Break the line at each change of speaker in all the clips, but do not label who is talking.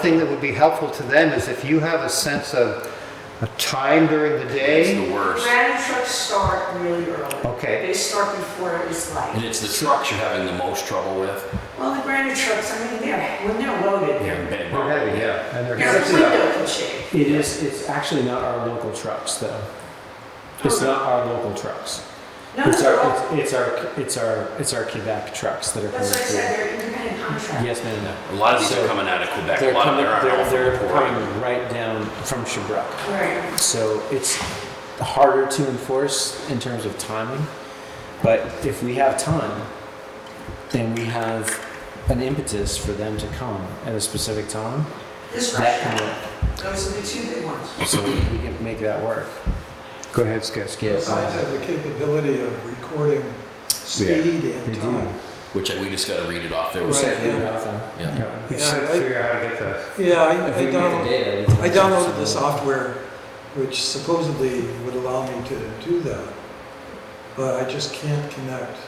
thing that would be helpful to them is if you have a sense of a time during the
It's
day.
the worst.
Granite trucks start really early.
Okay.
They start before it's
And
light.
it's the trucks you're having the most trouble with.
Well, the granite trucks, I mean, they're, when they're loaded,
They're
they're,
big.
They're heavy, yeah. And they're
they're
heavy.
window can shake.
It is, it's actually not our local trucks though. It's not our local trucks.
No,
It's
they're all-
our, it's it's our, it's our, it's our Quebec trucks that are coming
that's what I
through.
said, they're independent contractors.
Yes, no, no, no.
A lot of these
So
are coming out of Quebec.
They're
a lot
coming,
of them are
they're,
out
they're
from Port.
coming right down from Shabrook.
Right.
So it's harder to enforce in terms of timing. But if we have time, then we have an impetus for them to come at a specific time.
This
That can
restaurant,
work.
those are the two big ones.
So we can make that work.
Go ahead, Skip.
Yes.
Signs have the capability of recording speed
They
and
do.
time.
Which we just got to read it off. There was
Right.
yeah.
We
Yeah,
just have to
I-
figure out how to get the,
Yeah, I I downloaded, I downloaded the
this
software, which supposedly would allow me to do that, but I just can't connect.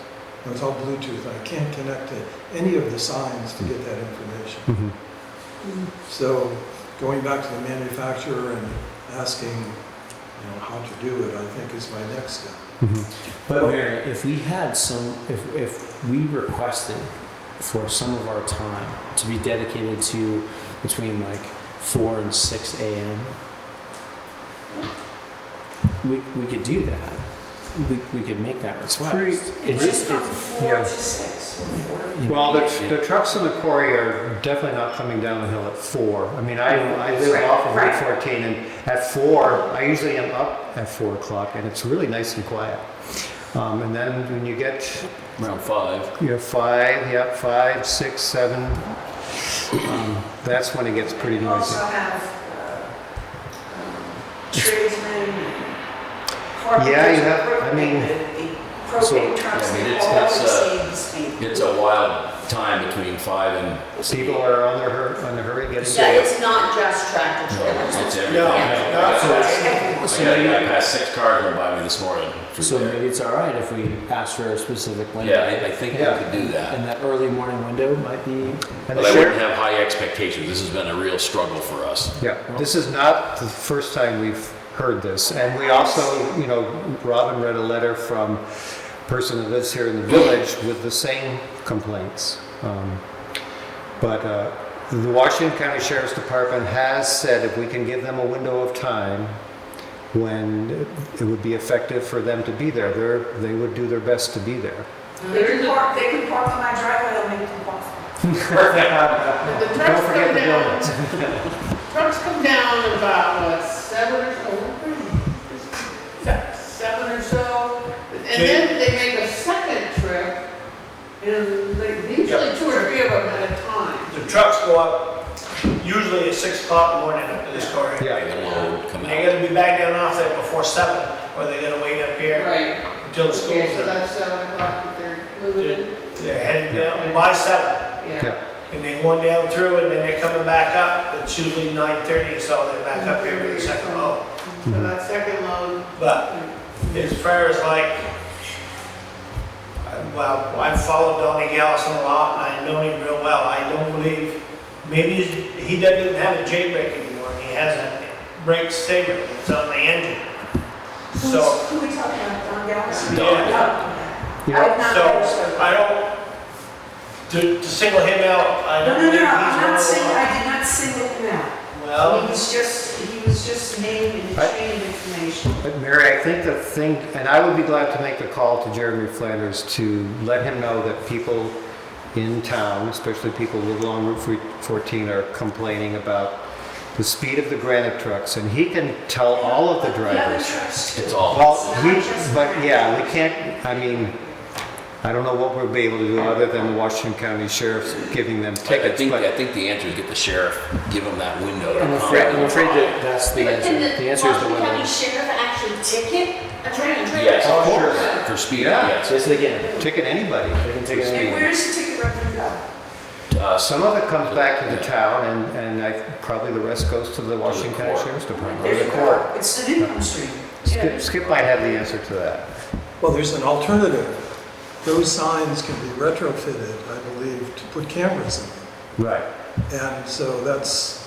It's all Bluetooth, I can't connect to any of the signs to get that information. So going back to the manufacturer and asking, you know, how to do it, I think is my next step.
But Mary, if we had some, if, if we requested for some of our time to be dedicated to between like four and six a.m., we, we could do that. We, we could make that request.
pretty-
it's
Just
just
from
it's,
four
yeah.
to six, or four to
you know,
well, the, the trucks in the quarry are definitely not coming down the hill at four. I mean, I, I live
Right,
off of Route
right.
fourteen and at four, I usually am up at four o'clock and it's really nice and quiet. Um, and then when you get,
Round five.
you know, five, yep, five, six, seven, um, that's when it gets pretty
You
noisy.
also have uh, um, tradesmen, carpenters.
Yeah, you have- I mean,
the
so-
Propane trucks,
I mean,
they
it's-
all
that's, uh,
exceed the speed.
It's a wild time between five and.
People are on their hur- on their hurry getting.
Yeah, it's not just tractor
No,
trailers.
it's everything.
No,
I
so it's-
got,
so
I got
maybe,
past six cars went by me this morning. through
so
there.
maybe it's all right if we ask for a specific window.
yeah, I, I think
Yeah.
we could do that.
and that early morning window might be
And
But
the
I
sheriff-
wouldn't have high expectations. This has been a real struggle for us.
Yeah, this is not the first time we've heard this, and we also, you know, Robin read a letter from a person that lives here in the village with the same complaints. Um, But uh, the Washington County Sheriff's Department has said if we can give them a window of time when it would be effective for them to be there, they're, they would do their best to be there.
They can park, they can park on my driveway, I'll make them park.
The trucks
Don't forget
come
the
down,
donuts.
trucks come down about, what, seven or so? Seven or so, and then they make a second trip, and like, usually two or three of them at a time.
The trucks go up usually at six o'clock in the morning up to this quarry.
Yeah.
And then we'll come
They
out.
gotta be back down off there before seven, or they gotta wait up here
Right.
until the school's
Okay, so
done.
that's seven o'clock that they're moving.
They're heading down by seven,
Yeah.
and they going down through, and then they're coming back up. It's usually nine thirty, so they're back up here for the second load.
So that Uh, second load,
But as far as like, I- well, I've followed Donnie Gallison a lot, and I know him real well. I don't believe, maybe he's- he doesn't have a J brake anymore, he has a brake saver that's on the engine.
Who's,
So,
who we talking about, Don Gallagher?
Don.
I have not heard
so
so.
I don't, to, to single him out, I
No,
don't
no,
believe
no,
he's
I'm
one
not
of the
saying,
ones.
I did not single him out. He
Well,
was just, he was just named in the
I-
chain of information.
But Mary, I think the thing, and I would be glad to make the call to Jeremy Flanders to let him know that people in town, especially people who live along Route 14, are complaining about the speed of the granite trucks, and he can tell all of the
The
drivers.
other trucks too.
It's all.
Well, he, but yeah, we can't, I mean, I don't know what we'll be able to do other than the Washington County Sheriff's giving them
I I
tickets,
think,
but.
I think the answer is get the sheriff, give him that window. to
I'm
come.
afraid, I'm afraid that that's the answer. The answer is the
Washington County
window.
Sheriff actually ticket a trailer trailer?
Yes,
Oh,
of course.
sure.
For speed,
Yeah.
yes.
Say it again.
Ticket anybody.
They can take it
And
anywhere.
where's the ticket revenue go?
Uh,
Some of it comes back to the town, and, and I, probably the rest goes to the Washington County
court.
Sheriff's Department.
There's
Or
a
the court.
It's an income stream.
Skip, Skip might have the answer to that.
Well, there's an alternative. Those signs can be retrofitted, I believe, to put cameras in.
Right.
And so that's